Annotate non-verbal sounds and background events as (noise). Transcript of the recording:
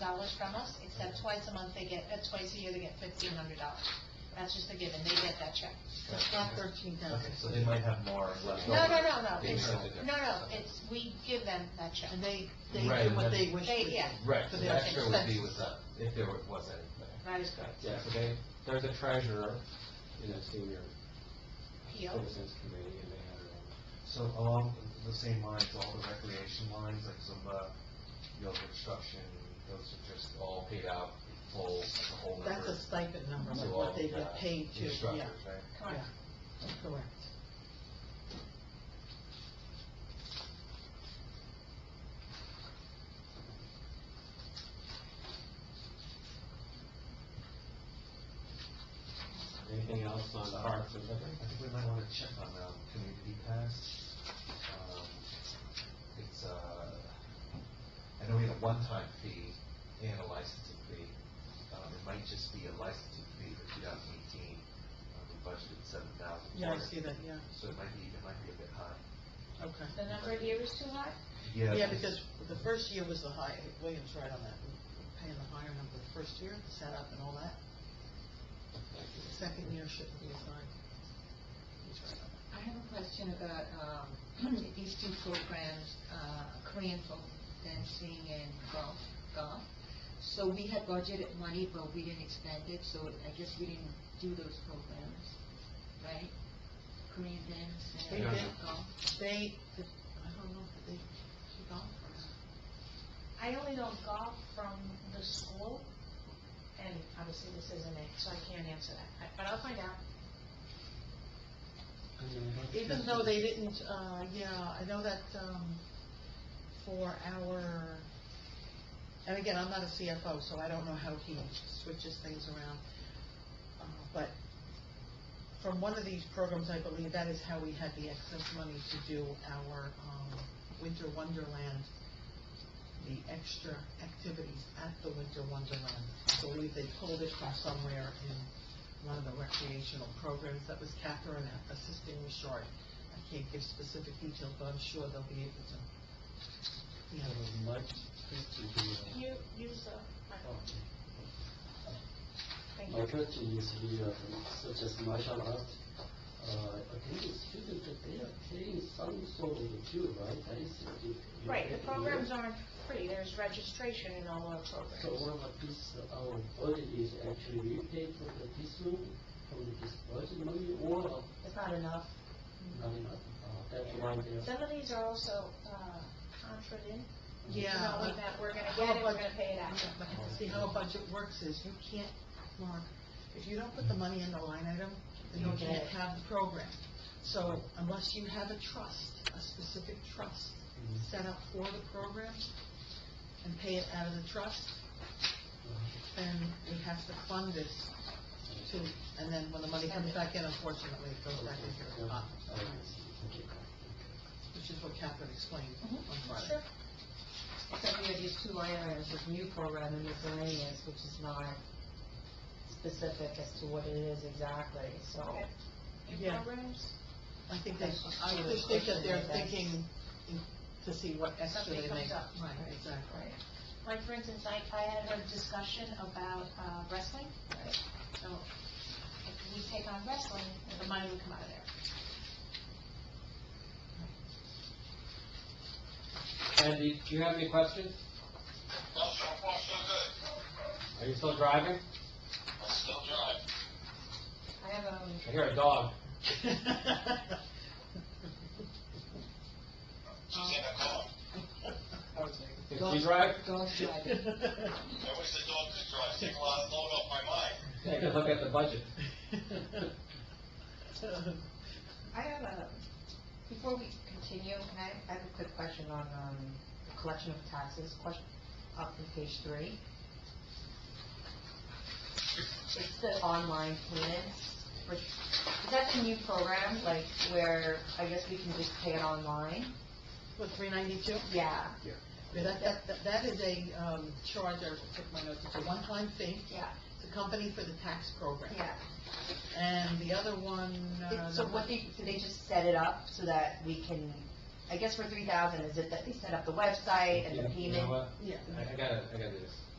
dollars from us, except twice a month they get, uh, twice a year they get fifteen hundred dollars. That's just a given, they get that check. It's not thirteen Okay, thousand, so they might have more left over. No, no, no, no, They it's, have the difference. no, no, it's, we give them that check. and they, they Right, do what they that's- wish. They- to do. yeah. Right, For so their the extra would be expenses. with them, if there wa- was anything. That is correct. Yeah, so they, there's a treasurer in a senior PO, citizens committee, and they have their own. So along the same lines, all the recreation lines, like Zumba, yoga instruction, those are just all paid out full, the whole number. That's a stipend number, to like all what they the, get uh, paid to, yeah, Instructors, right? correct. correct. Anything else on parks and I liquor? think we might want to check on, um, community pass. Um, It's, uh, I know we had a one-time fee and a licensing fee. Um, it might just be a licensing fee for two thousand eighteen. Um, we budgeted seven thousand. Yeah, I see that, yeah, So it might be, it might be a bit high. okay. The number here is too high? Yeah, because the first year was the high, William's right on that, We're paying the higher number the first year, set up and all that. The Second year shouldn't be as high. He's right on I have a question about, um, (clears throat) these two programs, uh, Korean folk dancing and golf, golf. So we had budgeted money, but we didn't expend it, so I guess we didn't do those programs, right? Korean dance and They did. golf. that. They, I don't know, if they, she gone for us. I only know golf from the school, and obviously this isn't it, so I can't answer that, I- but I'll find out. Even though they didn't, uh, yeah, I know that, um, for our, and again, I'm not a CFO, so I don't know how he switches things around. Uh, But from one of these programs, I believe that is how we had the excess money to do our, um, Winter Wonderland, the extra activities at the Winter Wonderland. I believe they pulled it from somewhere in one of the recreational programs. That was Catherine assisting with Short. I can't give specific details, but I'm sure they'll be able to. Yeah. You, use the microphone. Thank My you. question is here, uh, such as martial arts, uh, I think the students, they are paying some sort of due, right? That is the due. Right, the programs aren't free, there's registration in all our So programs. one of this, uh, our budget is actually we pay for the this room from this budget money or uh, It's not enough. not enough? Uh, That's why they are. Some of these are also, uh, contraed in. Yeah. You know, with that, we're gonna get it, we're gonna pay it out. Yeah, But see, how a budget works is, you can't, Mark, if you don't put the money in the line item, then you You get can't it. have the program. So unless you have a trust, a specific trust set up for the program, and pay it out of the trust, then we have to fund this to, and then when the money comes back in, unfortunately, it goes back into the pot, which is what Catherine explained on Friday. Mm-hmm. Sure. Except we have these two line items, this new program and miscellaneous, which is not specific as to what it is exactly, so. Okay. Your Yeah. programs, I think they, I just think that they're thinking in- to see what extra Something they comes make. up. Right, exactly. right. Like, for instance, I, I had a discussion about uh, wrestling. So if we take on wrestling, the money would come out of there. Andy, do you have any questions? Well, so far, so good. Are you still driving? I'm still driving. I have, um, I hear a dog. She's in a car. Did she drive? dog side. I wish the dog could drive. Take a lot of load off my mind. Take a look at the budget. I have a, before we continue, can I, I have a quick question on, um, the collection of taxes, question, up on page three. It's the online payments, which, is that the new program, like, where I guess we can just pay it online? What, three ninety-two? Yeah, That, that, that- that is a, um, charge, I took my notes, it's a one-time fee, yeah, it's a company for the tax program. yeah. And the other one, uh, So what they, do they just set it up so that we can, I guess for three thousand, is it that they set up the website and You the know- You know payment? what? yeah, I I gotta, I gotta do this.